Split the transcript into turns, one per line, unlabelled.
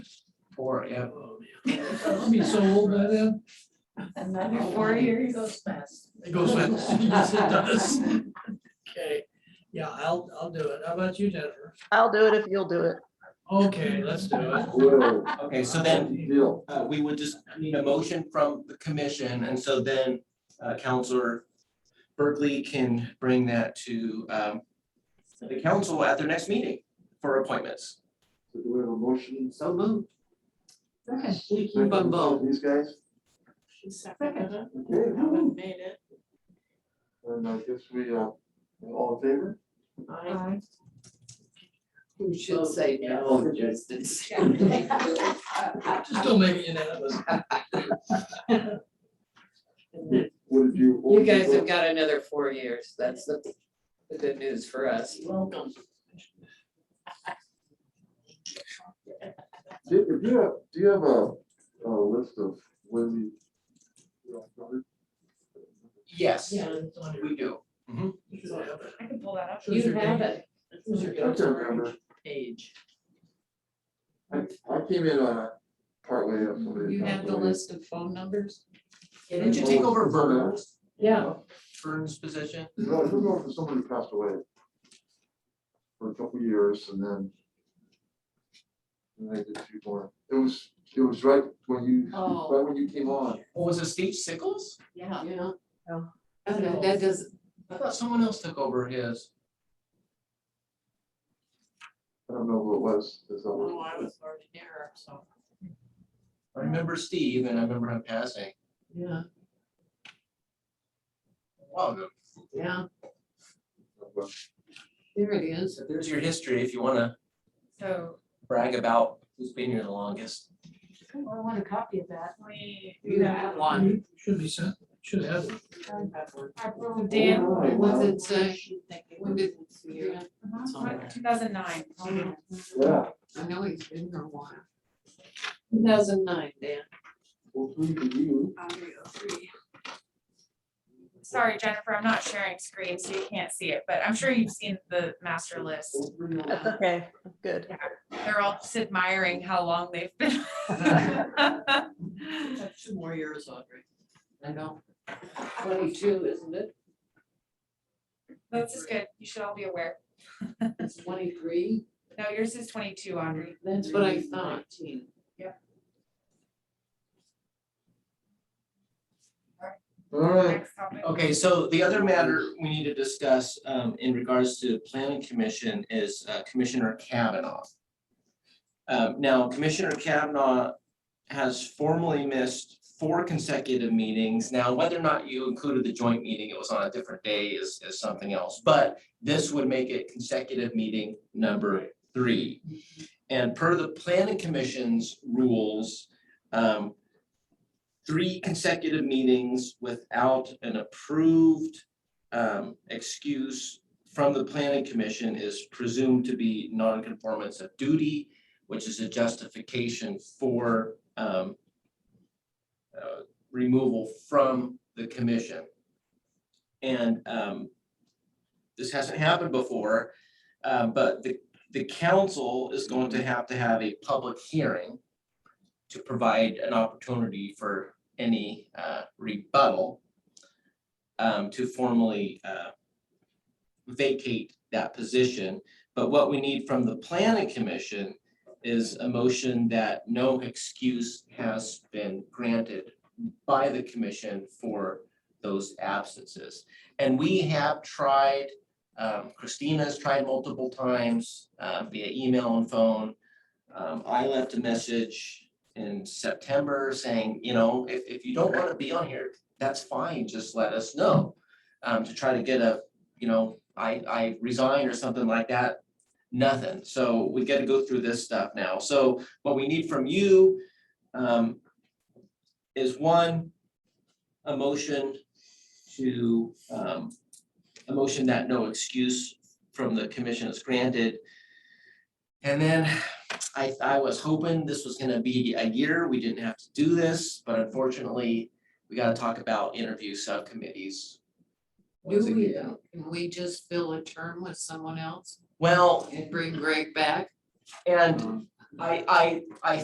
four, yeah.
I'll Oh, be so old by then.
Another four years.
goes fast.
It goes fast.
Yes, it does. Okay, yeah, I'll, I'll do it. How about you, Jennifer?
I'll do it if you'll do it.
Okay, let's do it.
Whoa.
Okay, so then
Bill.
uh, we would just need a motion from the commission, and so then uh, Counselor Berkeley can bring that to um, the council at their next meeting for appointments.
So do we have a motion?
So moved.
Second by
Bumbo.
These guys,
She seconded it.
okay,
No one made it.
and I guess we, uh, all in favor?
Who should say
no,
just.
Just don't make it unanimous.
What did you? what
You
did you
guys have
vote?
got another four years. That's the, the good news for us.
Welcome.
Do if you have, do you have a, a list of when the?
Yes,
Yeah. it's on your-
we do.
you don't have it.
I can pull that up.
Choose your date.
it.
Choose your
I can't
date.
remember.
Page.
I, I came in on a partway up. somebody-
You have the list of phone numbers?
Did you take over Vern's,
Yeah,
Vern's position?
No, I took over for somebody who passed away. For a couple of years and then. And I did a few more. It was, it was right when you,
Oh.
right when you came on.
Or was it Steve Sickles?
Yeah. Oh,
Yeah.
Okay, That does,
I thought someone else took over his.
I don't know who it was. there's
oh,
always-
I was already there, so.
I remember Steve and I remember him passing.
Yeah,
a while ago.
yeah,
but
there it is.
So there's your history if you want to
So
brag about who's been here the longest.
I want a copy of that. We.
You have one.
you should be sent, should have it.
Mm-hmm.
Dan.
Alright,
Was
well,
it, uh, when did, yeah,
Uh-huh. Two thousand nine.
Yeah,
I know he's been here a while. Two thousand nine, Dan.
well, three to you.
Sorry, Jennifer, I'm not sharing screen, so you can't see it, but I'm sure you've seen the master list.
Well, three
That's
to-
okay. Good.
They're all just admiring how long they've been.
Have Two more years, Audrey. I know. Twenty-two, isn't it?
This is good. You should all be aware.
It's twenty-three.
No, yours is twenty-two, Audrey.
That's what I thought.
All right,
Next topic.
Okay, so the other matter we need to discuss um, in regards to planning commission is uh, Commissioner Kavanaugh. Um, Now, Commissioner Kavanaugh has formally missed four consecutive meetings. Now, whether or not you included the joint meeting, it was on a different day is, is something else. But this would make it consecutive meeting number three. And per the planning commission's rules, um, three consecutive meetings without an approved um, excuse from the planning commission is presumed to be nonconformance of duty, which is a justification for um, uh, removal from the commission. And um, this hasn't happened before, uh, but the, the council is going to have to have a public hearing to provide an opportunity for any uh, rebuttal um, to formally uh, vacate that position. But what we need from the planning commission is a motion that no excuse has been granted by the commission for those absences. And we have tried, um, Christina's tried multiple times uh, via email and phone. Um, I left a message in September saying, you know, if, if you don't want to be on here, that's fine, just let us know. Um, to try to get a, you know, I, I resign or something like that, nothing. So we got to go through this stuff now. So what we need from you, um, is one, a motion to, um, a motion that no excuse from the commission is granted. And then I, I was hoping this was gonna be a year, we didn't have to do this, but unfortunately, we gotta talk about interview subcommittees. once
Do we
again.
Can we just fill a term with someone else
Well,
and bring Greg back?
and I, I, I